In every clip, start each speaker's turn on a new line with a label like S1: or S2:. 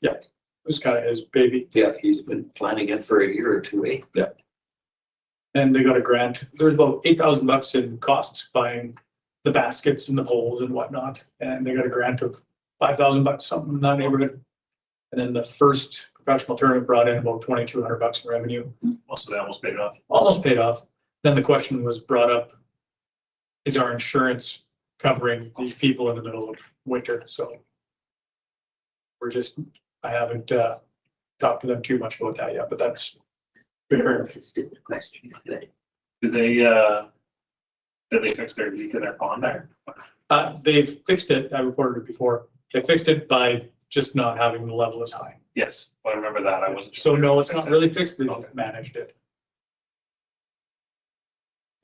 S1: Yeah, it was kind of his baby,
S2: Yeah, he's been planning it for a year or two, eh?
S1: and they got a grant. There's about eight thousand bucks in costs buying the baskets and the poles and whatnot, and they got a grant of five thousand bucks, something in that neighborhood. And then the first professional tournament brought in about twenty-two hundred bucks in revenue,
S3: Also, they almost paid it off.
S1: almost paid off. Then the question was brought up, is our insurance covering these people in the middle of winter? So we're just, I haven't, uh, talked to them too much about that yet, but that's.
S4: That's a stupid question, but
S3: Did they, uh, did they fix their leak in their pond there?
S1: Uh, they've fixed it, I reported it before, they fixed it by just not having the level as high.
S3: Yes, I remember that. I wasn't. sure
S1: So
S3: if
S1: no,
S3: they
S1: it's
S3: fixed
S1: not
S3: it.
S1: really fixed, they just managed it.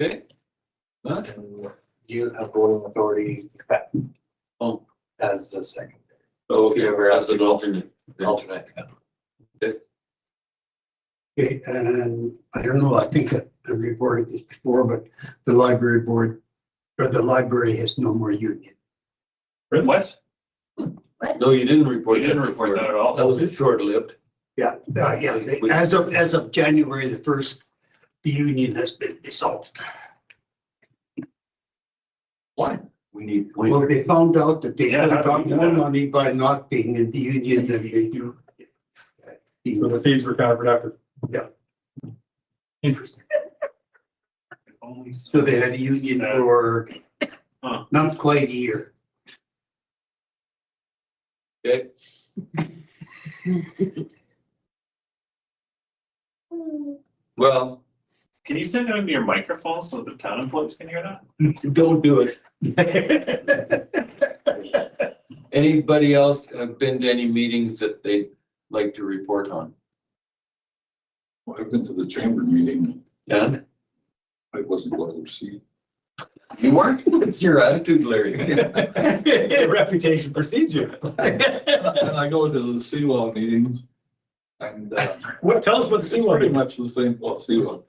S2: Okay. But,
S5: You have voting authority
S2: oh,
S5: as a second.
S2: okay, Oh. or as an alternate.
S5: Alternate.
S6: Okay, and I don't know, I think I I reported this before, but the library board, or the library has no more union.
S3: What?
S2: No, you didn't report.
S3: We didn't report that at all.
S2: That was short-lived.
S6: Yeah, uh, yeah, they- as of, as of January the first, the union has been dissolved.
S2: Why? We need. we-
S6: Well, they found out that they
S3: Yeah,
S6: could
S3: how
S6: have
S3: do we
S6: got
S3: do
S6: more
S3: that?
S6: money by not being in the union than they do.
S1: So the fees were counterproductive.
S6: Yeah.
S1: Interesting.
S3: Only
S6: So they had a union
S3: Uh,
S6: for
S3: Huh.
S6: not quite a year.
S2: Okay, well,
S3: Can you send that into your microphone so the town employees can hear that?
S2: don't do it. Anybody else have been to any meetings that they'd like to report on?
S7: I've been to the chamber meeting.
S2: Dan?
S7: I wasn't going to see.
S2: You weren't? It's your attitude, Larry.
S1: Reputation precedes you.
S7: And I go to the Seawall meetings. And uh,
S1: What, tell us what
S7: it's pretty
S1: Seawalk,
S7: much the same, well, Seawall.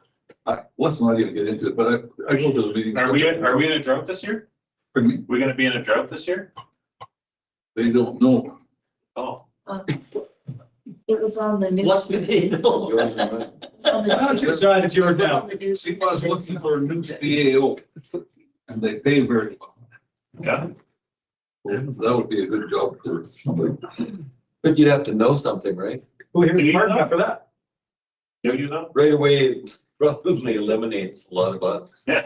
S7: I, let's not even get into it, but I, I go to the meeting.
S3: Are we, are we in a drought this year?
S7: Pardon me?
S3: We're gonna be in a drought this year?
S7: They don't know.
S3: Oh,
S4: it was on the news.
S2: What's with it?
S7: Yours and mine.
S4: It was on the
S1: why don't you decide it's yours now?
S4: news.
S7: Seawall's looking for a new CAO. And they pay very well.
S3: yeah.
S7: So That would be a good job for somebody.
S2: But you'd have to know something, right?
S1: Who here
S3: Do
S1: is
S3: you
S1: Martin
S3: know?
S1: after that?
S3: Do you know?
S2: Right away, it probably eliminates a lot of us.
S1: You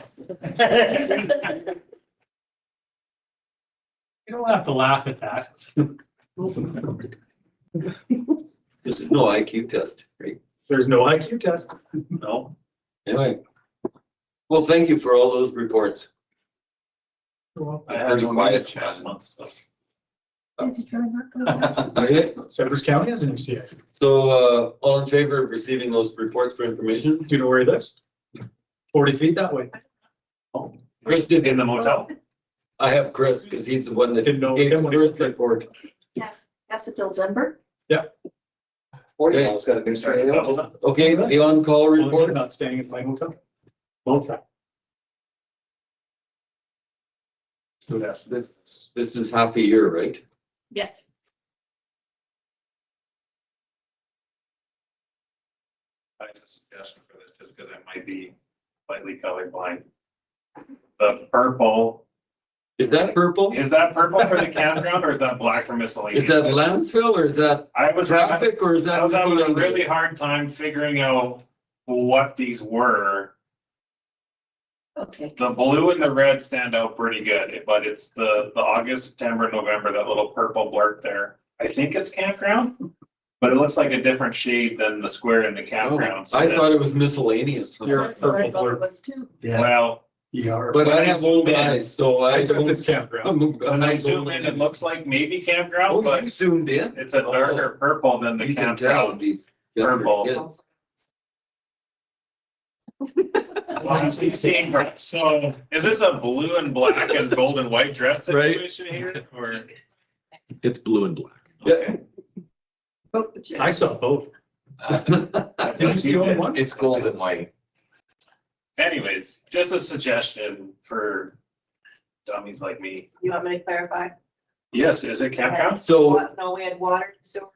S1: don't have to laugh at that.
S2: This is no IQ test, right?
S1: There's no IQ test.
S3: No.
S2: Anyway. Well, thank you for all those reports.
S3: I had
S2: Pretty
S3: no
S2: quiet
S3: meetings
S2: chat.
S3: last month, so.
S4: Is it really not going on?
S2: Okay,
S1: Severs County has an E MCF.
S2: so, uh, all in favor of receiving those reports for information?
S1: Do you know where he lives? Forty feet that way.
S2: Chris did,
S3: In the motel?
S2: I have Chris, because he's the one that gave
S1: Didn't know it was him
S2: the
S1: when he-
S2: first report.
S4: Yes, that's until December.
S5: Forty miles got a new CAO.
S3: Doubled up.
S2: Okay, the on-call
S1: Report
S2: report,
S1: about staying at my hotel. Both times.
S3: Do that.
S2: this, this is half a year, right?
S4: Yes.
S3: I have a suggestion for this, just because I might be slightly colorblind. The purple,
S2: Is that purple?
S3: is that purple for the campground or is that black for miscellaneous?
S2: Is that landfill or is that
S3: I was having,
S2: traffic or is that?
S3: I was having a
S2: miscellaneous?
S3: really hard time figuring out what these were.
S4: Okay.
S3: The blue and the red stand out pretty good, but it's the, the August, September, November, that little purple blurb there. I think it's campground, but it looks like a different shade than the square in the
S2: Oh,
S3: campground. so
S2: I
S3: that-
S2: thought it was miscellaneous.
S1: You're-
S4: That's what I thought
S1: purple
S4: it was too.
S6: Yeah,
S3: Well,
S6: you are.
S2: But I have old eyes, so I
S1: I took
S2: don't.
S1: this campground.
S2: I'm- I'm
S3: when I
S2: not
S3: zoom
S2: old
S3: in, it
S2: enough.
S3: looks like maybe campground,
S2: Oh,
S3: but
S2: you zoomed in?
S3: It's a darker purple than the
S2: You can tell
S3: campground.
S2: these. younger
S3: Purple.
S2: kids.
S3: Honestly, same, right? So is this a blue and black and gold and white dress
S2: Right.
S3: situation here or?
S8: It's blue and black.
S2: Yeah.
S3: Okay.
S4: Oh,
S1: I saw both.
S3: I
S1: Did you
S3: think
S1: see
S3: you
S1: only
S3: did.
S1: one?
S5: It's gold and white.
S3: Anyways, just a suggestion for dummies like me.
S9: You want me to clarify?
S3: Yes, is it campground?
S2: So
S9: What? No, we had water, sewer,